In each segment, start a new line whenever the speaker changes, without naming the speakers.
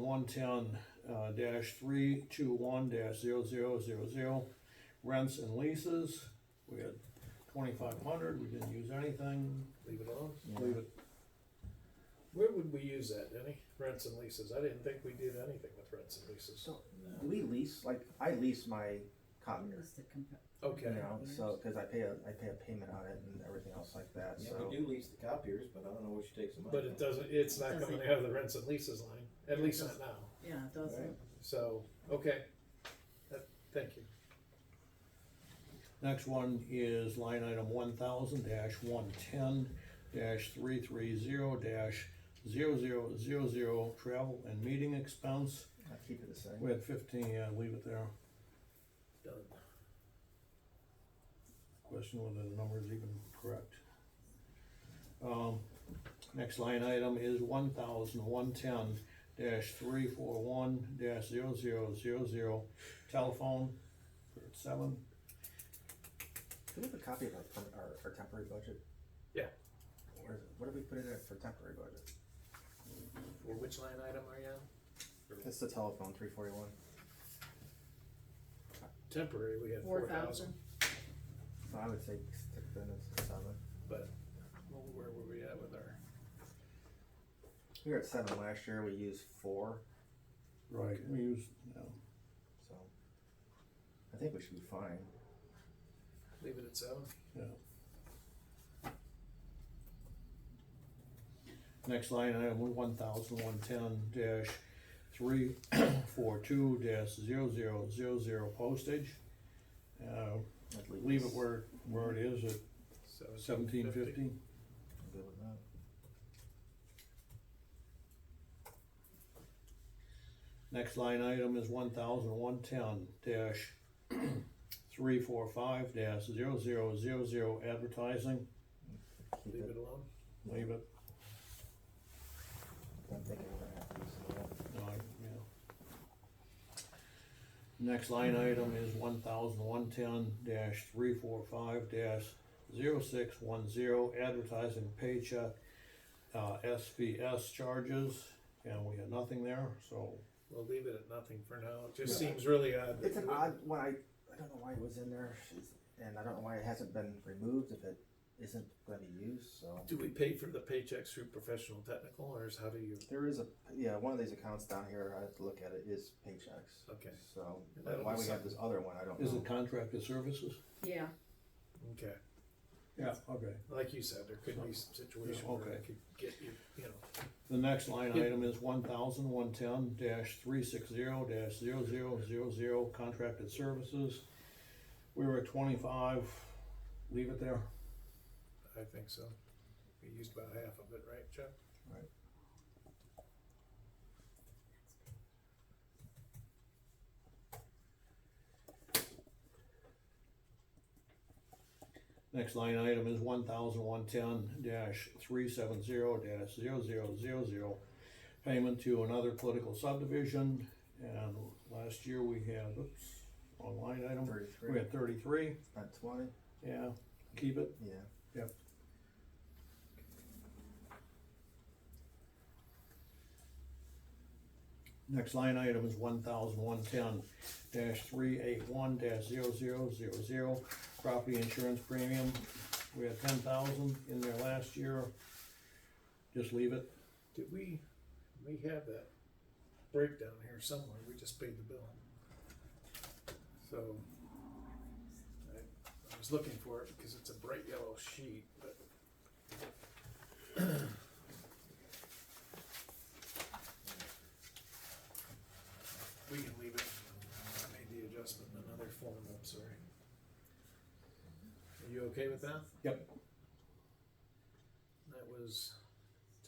one ten, uh, dash three two one dash zero zero zero zero, rents and leases. We had twenty-five hundred, we didn't use anything,
Leave it alone.
leave it,
Where would we use that, Denny? Rents and leases. I didn't think we did anything with rents and leases.
So, do we lease, like, I lease my copier,
It's the compa-
you
Okay.
know, so, cause I pay a, I pay a payment on it and everything else like that,
Yeah,
so.
we do lease the copiers, but I don't know what she takes them money
But it doesn't, it's not
Doesn't-
coming out of the rents and leases line, at least not now.
Yeah, it doesn't,
So, okay. That- Thank you.
Next one is line item one thousand dash one ten dash three three zero dash zero zero zero zero travel and meeting expense.
I keep it the same.
We had fifteen, yeah, leave it there.
Done.
Question whether the number is even correct. Um, next line item is one thousand one ten dash three four one dash zero zero zero zero telephone for seven.
Do we have a copy of our, perm- our, our temporary budget?
Yeah.
Where is it? What did we put it at for temporary budget?
For which line item are you on?
It's the telephone, three forty-one.
Temporary, we had
four
four
thousand,
thousand,
So I would say stick the minutes seven.
but where were we at with our?
We were at seven last year, we used four,
Right. We use, yeah.
so. I think we should be fine.
Leave it at seven?
Next line item, one thousand one ten dash three four two dash zero zero zero zero postage. Uh,
I'd
leave it where, where it is at seventeen fifty.
I'm Good with that.
Next line item is one thousand one ten dash three four five dash zero zero zero zero advertising,
Keep
Leave
it,
it alone?
leave it,
I'm thinking we're gonna have to use it.
uh, yeah. Next line item is one thousand one ten dash three four five dash zero six one zero advertising paycheck, uh, SVS charges, and we had nothing there, so
We'll leave it at nothing for now. It just
Yeah.
seems really odd. that
It's an
we-
odd one. I, I don't know why it was in there, She's- and I don't know why it hasn't been removed if it isn't going to be used. So
Do we pay for the paychecks through professional technical, or is how do you?
there is a yeah one of these accounts down here. I have to look at it is paychecks.
Okay.
So
And
but
that'll
why
be
we have this other one, I don't
is
know.
it contracted services?
yeah,
Okay,
Yeah, okay.
like you said, there could be some situation
Yeah,
where
okay.
it could get you, you know,
The next line
Yeah.
item is one thousand one ten dash three six zero dash zero zero zero zero contracted services. We were at twenty-five, leave it there.
I think so. We used about half of it, right, Chuck?
Next line item is one thousand one ten dash three seven zero dash zero zero zero zero. Payment to another political subdivision, and last year we had, oops, wrong line item, we
Thirty-three,
had thirty-three,
not twenty.
yeah, keep it.
Yeah.
Next line item is one thousand one ten dash three eight one dash zero zero zero zero, property insurance premium. We had ten thousand in there last year. Just leave it.
Did we, we have that breakdown here somewhere, we just paid the bill. So, I, I was looking for it because it's a bright yellow sheet, but. We can leave it, I made the adjustment in another form, I'm sorry. Are you okay with that?
Yep.
That was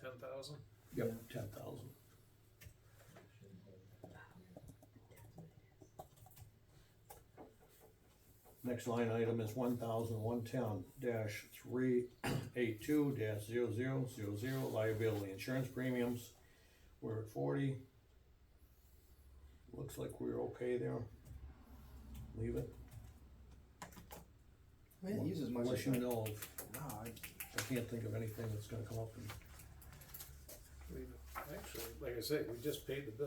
ten thousand?
Yep. Ten thousand. Next line item is one thousand one ten dash three eight two dash zero zero zero zero liability insurance premiums. We're at forty. Looks like we're okay there. Leave it,
I mean, it uses much.
unless
as
you
I-
know, of-
No, I-
I can't think of anything that's gonna come up in
We, actually, like I say, we just paid the bill.